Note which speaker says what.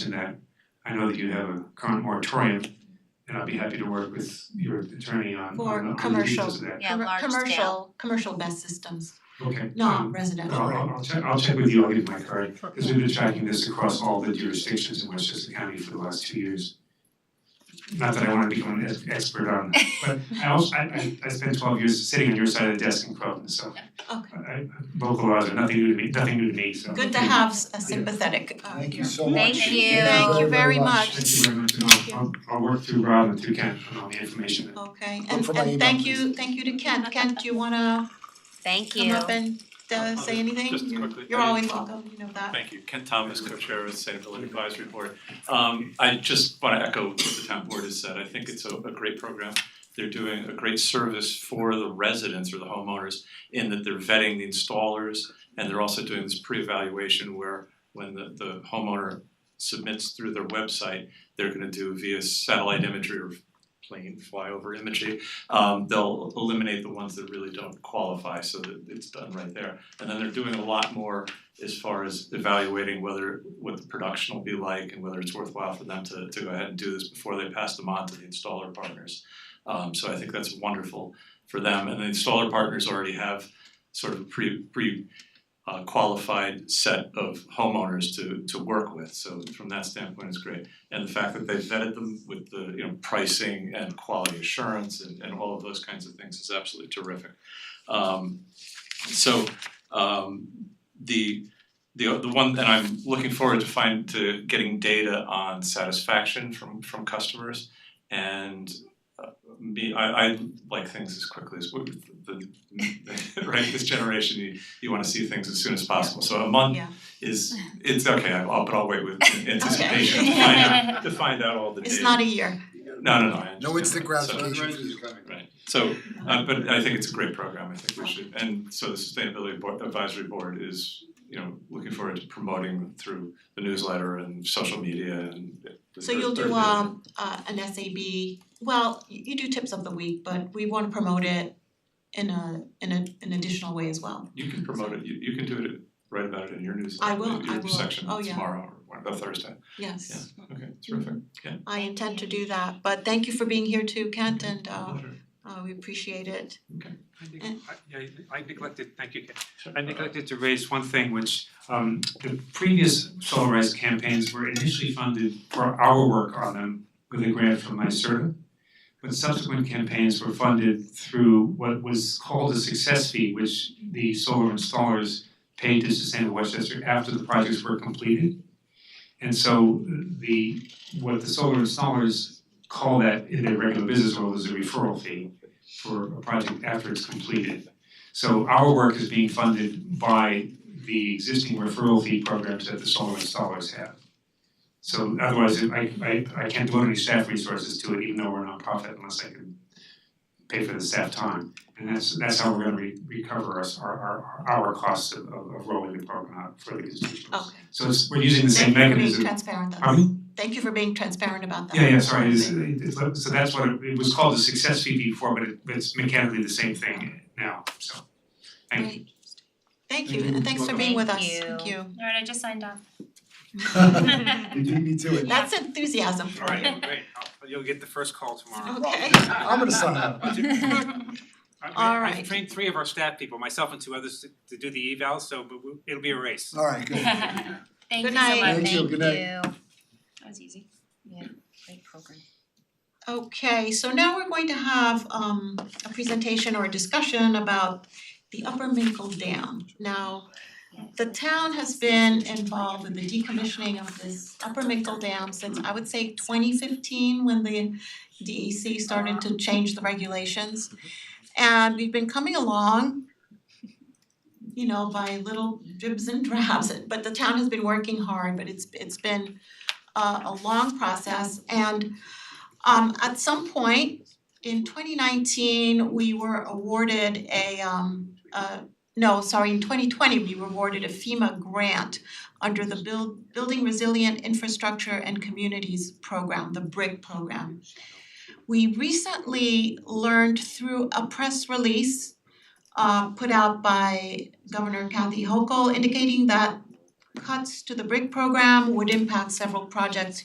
Speaker 1: to that. I know that you have a current moratorium, and I'd be happy to work with your attorney on
Speaker 2: For
Speaker 1: on on the details of
Speaker 2: commercial.
Speaker 1: that.
Speaker 3: Yeah,
Speaker 2: Commer-
Speaker 3: large scale.
Speaker 2: Commercial, commercial
Speaker 4: Mm-hmm.
Speaker 2: best systems,
Speaker 1: Okay,
Speaker 2: not
Speaker 1: um,
Speaker 2: residential.
Speaker 1: I'll I'll I'll check, I'll check with you, I'll give my card, because we've been tracking this across all the jurisdictions in Westchester County for the last two years. Not that I wanna become an ex- expert on that, but I also, I I I spent twelve years sitting on your side of the desk in Croton, so
Speaker 2: Okay,
Speaker 1: I I local laws are nothing new to me, nothing new to me, so.
Speaker 2: good to have s- a sympathetic uh
Speaker 4: Thank you
Speaker 2: ear.
Speaker 4: so much.
Speaker 3: Thank you.
Speaker 2: Thank you very much.
Speaker 1: Thank you very much, and I'll I'll I'll work through Rob and through Ken on all the information that
Speaker 2: Okay,
Speaker 4: Look
Speaker 2: and
Speaker 4: for my
Speaker 2: and
Speaker 4: email,
Speaker 2: thank you, thank you to Ken, Ken, do you wanna
Speaker 3: Thank
Speaker 2: come
Speaker 3: you.
Speaker 2: up and uh say anything?
Speaker 5: Just
Speaker 2: You're-
Speaker 5: quickly,
Speaker 2: You're
Speaker 5: I-
Speaker 2: always welcome, you know that.
Speaker 5: Thank you. Ken Thomas, co-chair of the Sustainability Advisory Board. Um, I just wanna echo what the town board has said. I think it's a, a great program. They're doing a great service for the residents or the homeowners in that they're vetting the installers and they're also doing this pre-evaluation where when the, the homeowner submits through their website, they're gonna do via satellite imagery or plane flyover imagery. Um, they'll eliminate the ones that really don't qualify so that it's done right there. And then they're doing a lot more as far as evaluating whether what the production will be like and whether it's worthwhile for them to to go ahead and do this before they pass them on to the installer partners. Um so I think that's wonderful for them and the installer partners already have sort of a pre pre uh qualified set of homeowners to to work with, so from that standpoint it's great. And the fact that they vetted them with the, you know, pricing and quality assurance and and all of those kinds of things is absolutely terrific. Um so um the the the one that I'm looking forward to find to getting data on satisfaction from from customers and uh, me I I like things as quickly as we the the- right this generation you you wanna see things as soon as possible so a month
Speaker 2: Yeah.
Speaker 5: is it's okay I'll but I'll wait with anticipation to find out to find out all the data
Speaker 2: It's not a year.
Speaker 5: no no no I
Speaker 4: No
Speaker 5: understand that.
Speaker 4: Instagram
Speaker 5: So-
Speaker 4: vacation for you.
Speaker 5: Right, so uh but I think it's a great program, I think we should, and so the Sustainability Board Advisory Board is, you know, looking forward to promoting through the newsletter and social media and the
Speaker 2: So you'll
Speaker 5: third-
Speaker 2: do
Speaker 5: third day.
Speaker 2: um uh an SAB, well, you you do tips of the week, but we wanna promote it in a in a an additional way as well.
Speaker 5: You can promote it, you you can do it, write about it in your
Speaker 2: I
Speaker 5: newsletter,
Speaker 2: will,
Speaker 5: maybe
Speaker 2: I
Speaker 5: your
Speaker 2: will.
Speaker 5: section
Speaker 2: Oh, yeah. Mm-hmm.
Speaker 5: tomorrow or one the Thursday,
Speaker 2: Yes,
Speaker 5: okay, terrific, yeah.
Speaker 2: I intend to do that, but thank you for being here too, Kent, and uh
Speaker 5: Sure.
Speaker 2: uh we appreciate it.
Speaker 1: I neg-
Speaker 2: Eh.
Speaker 1: I- yeah, I neglected, thank you, Ken. I neglected to raise one thing, which um the previous Solarize campaigns were initially funded for our work on them with a grant from NYSERDA. But subsequent campaigns were funded through what was called a success fee, which the solar installers paid to Sustainable Westchester after the projects were completed. And so the what the solar installers call that in their regular business world is a referral fee for a project after it's completed. So our work is being funded by the existing referral fee programs that the solar installers have. So otherwise, I I I can't devote any staff resources to it, even though we're a nonprofit, unless I can pay for the staff time. And that's that's how we're gonna re- recover us our our our costs of of of rolling the program out for the constituents.
Speaker 2: Okay.
Speaker 1: So it's, we're using the same
Speaker 2: Oh. Thank you for being
Speaker 1: mechanism.
Speaker 2: transparent about
Speaker 1: Pardon me?
Speaker 2: Thank you for being transparent about that.
Speaker 1: Yeah, yeah, sorry, it's it's so that's what it it was called a success fee before, but it but it's mechanically the same thing now, so thank you.
Speaker 2: Great. Thank you, and thanks for being with us,
Speaker 3: Thank you.
Speaker 2: thank you.
Speaker 6: Alright, I just signed off.
Speaker 4: You do me to it.
Speaker 2: That's enthusiasm for you.
Speaker 7: Alright, great, I'll- you'll get the first call tomorrow.
Speaker 2: Okay,
Speaker 4: I'm gonna sign up.
Speaker 7: I- I
Speaker 2: Alright.
Speaker 7: I've trained three of our staff people, myself and two others, to to do the evals, so but we- it'll be a race.
Speaker 4: All right, good.
Speaker 6: Thank you so much.
Speaker 2: Good night.
Speaker 4: Thank you, good night.
Speaker 6: That was easy.
Speaker 3: Great program.
Speaker 2: okay, so now we're going to have um a presentation or a discussion about the Upper Minkle Dam. Now, the town has been involved in the decommissioning of this Upper Minkle Dam since I would say twenty fifteen when the DEC started to change the regulations. And we've been coming along, you know, by little dribs and drabs, but the town has been working hard, but it's it's been uh, a a long process and um at some point in twenty nineteen, we were awarded a um uh no, sorry, in twenty twenty, we were awarded a FEMA grant under the Build Building Resilient Infrastructure and Communities program, the BRIC program. We recently learned through a press release uh put out by Governor Kathy Hochul indicating that cuts to the BRIC program would impact several projects